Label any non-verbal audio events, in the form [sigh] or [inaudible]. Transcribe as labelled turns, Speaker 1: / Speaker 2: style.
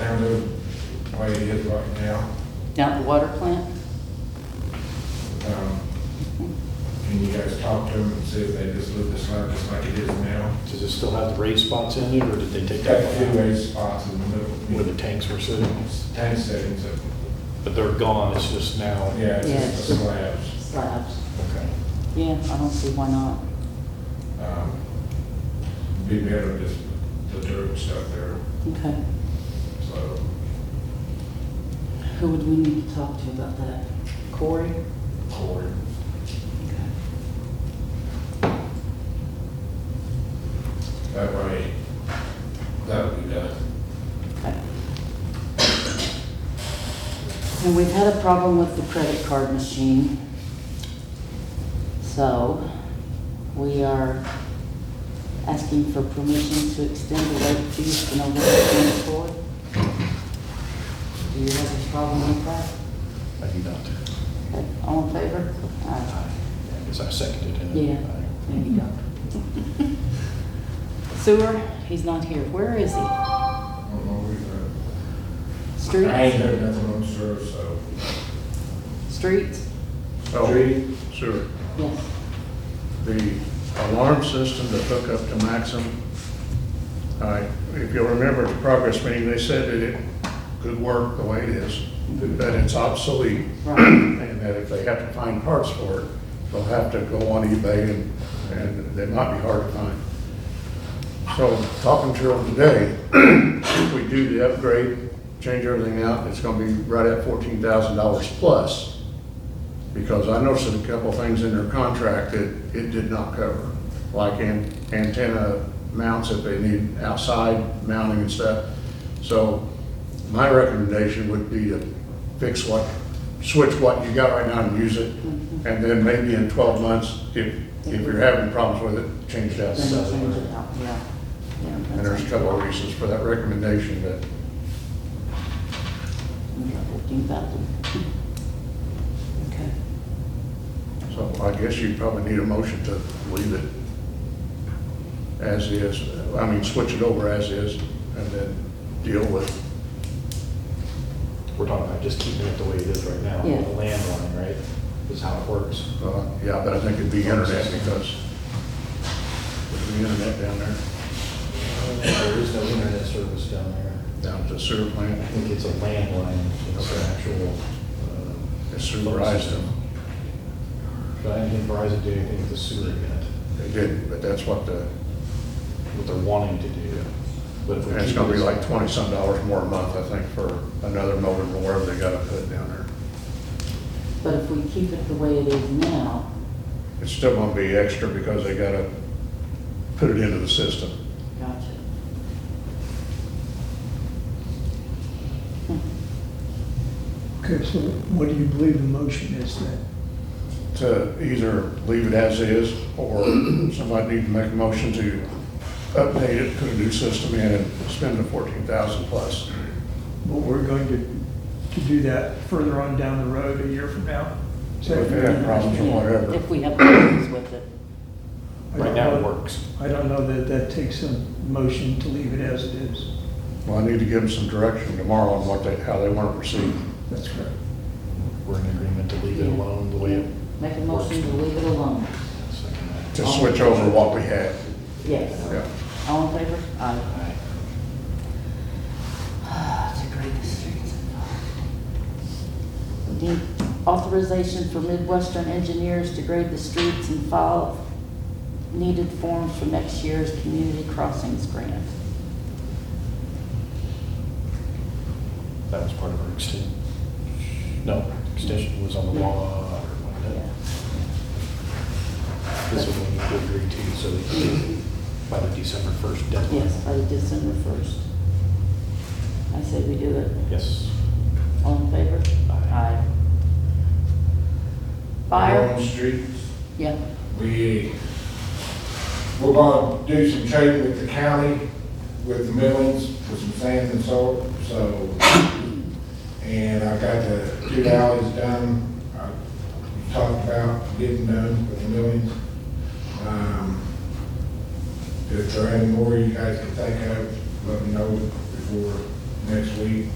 Speaker 1: way it is right now.
Speaker 2: down at the water plant?
Speaker 1: Um, Can you guys talk to them and see if they just leave the slide just like it is now?
Speaker 3: Does it still have the raised spots in it, or did they take
Speaker 1: It's
Speaker 3: that
Speaker 1: got two
Speaker 3: one out?
Speaker 1: raised spots in the middle.
Speaker 3: Where the tanks were sitting,
Speaker 1: Ten seconds of,
Speaker 3: but they're gone, it's just now.
Speaker 1: yeah, it's just the
Speaker 2: Yes.
Speaker 1: slabs.
Speaker 2: Slabs.
Speaker 3: Okay.
Speaker 2: Yeah, I don't see why not.
Speaker 1: Um, Be better just the dirt stuff there,
Speaker 2: Okay.
Speaker 1: so.
Speaker 2: Who would we need to talk to about that? Corey?
Speaker 1: Corey. That way, that would be done.
Speaker 2: Okay. And we've had a problem with the credit card machine. So we are asking for permission to extend the late fees to November twenty-fourth. Do you have a problem with that?
Speaker 3: I do not.
Speaker 2: Okay, All in favor? Aye.
Speaker 3: Because I seconded it.
Speaker 2: Yeah, there you go. Sewer, he's not here. Where is he?
Speaker 1: I don't know, we, uh, I ain't
Speaker 2: Streets?
Speaker 1: heard nothing on sewer, so.
Speaker 2: Streets?
Speaker 4: Tree, sure.
Speaker 2: Yes.
Speaker 4: The alarm system that hook up to Maxim, I- if you'll remember the progress meeting, they said that it could work the way it is, that it's obsolete, [coughs]
Speaker 2: Right.
Speaker 4: and that if they have to find parts for it, they'll have to go on eBay and, and they might be hard to find. So talking to them today, if we do the upgrade, change everything out, it's gonna be right at fourteen thousand dollars plus. Because I noticed a couple things in their contract that it did not cover, like an- antenna mounts if they need outside mounting and stuff. So my recommendation would be to fix what, switch what you got right now and use it.
Speaker 2: Mm-hmm.
Speaker 4: And then maybe in twelve months, if, if you're having problems with it, change that
Speaker 2: Then
Speaker 4: stuff.
Speaker 2: we'll change it out, yeah. Yeah,
Speaker 4: And there's a
Speaker 2: that's-
Speaker 4: couple of reasons for that recommendation, but
Speaker 2: Yeah, 15,000. Okay.
Speaker 4: So I guess you probably need a motion to leave it as is, I mean, switch it over as is, and then deal with,
Speaker 3: We're talking about just keeping it the way it is right now, the
Speaker 2: Yeah.
Speaker 3: landline, right, is how it works.
Speaker 4: uh, yeah, but I think it'd be internet because there'd be internet down there,
Speaker 3: There is no internet service down there.
Speaker 4: down to sewer
Speaker 3: I
Speaker 4: plant,
Speaker 3: think it's a landline, it's an actual. uh,
Speaker 4: it's supervised them.
Speaker 3: But I didn't think Verizon did anything with the sewer yet,
Speaker 4: They didn't, but that's what the,
Speaker 3: what they're wanting to do. But if we
Speaker 4: and it's
Speaker 3: keep
Speaker 4: gonna be
Speaker 3: this-
Speaker 4: like twenty-some dollars more a month, I think, for another modem or wherever they gotta put it down there.
Speaker 2: But if we keep it the way it is now,
Speaker 4: It's still gonna be extra because they gotta put it into the system.
Speaker 2: gotcha.
Speaker 5: Okay, so what do you believe the motion is then?
Speaker 4: to either leave it as is, or somebody need to make a motion to update it, put a new system in, and spend the fourteen thousand plus.
Speaker 5: But we're going to, to do that further on down the road, a year from now? Is that-
Speaker 4: If they have problems or
Speaker 2: Yeah,
Speaker 4: whatever.
Speaker 2: If we have problems with it.
Speaker 5: I don't
Speaker 3: Right now it
Speaker 5: know-
Speaker 3: works.
Speaker 5: I don't know that that takes a motion to leave it as it is.
Speaker 4: Well, I need to give them some direction tomorrow on what they, how they want to proceed.
Speaker 5: That's correct.
Speaker 3: We're in agreement to leave it alone the way it.
Speaker 2: Make a motion to
Speaker 3: works.
Speaker 2: leave it alone.
Speaker 3: Second that.
Speaker 4: To switch over what we had.
Speaker 2: Yes.
Speaker 4: Yeah.
Speaker 2: All in favor? Aye.
Speaker 3: Aye.
Speaker 2: To grade the streets. Need authorization for Midwestern engineers to grade the streets and file needed forms for next year's community crossings grant.
Speaker 3: That was part of our extension. No, extension was on the law or
Speaker 2: Yeah.
Speaker 3: whatever. This is what we need to agree to, so that you- by the December 1st deadline.
Speaker 2: Yes, by December first. I say we do it.
Speaker 3: Yes.
Speaker 2: All in favor?
Speaker 3: Aye.
Speaker 2: Fire?
Speaker 1: On streets,
Speaker 2: Yeah,
Speaker 1: we, we're gonna do some trading with the county, with the Midlands, for some sand and salt, so. And I got the two alleys done, I talked about getting done with the Midlands. Um, If there are any more you guys can think of, let me know before next week.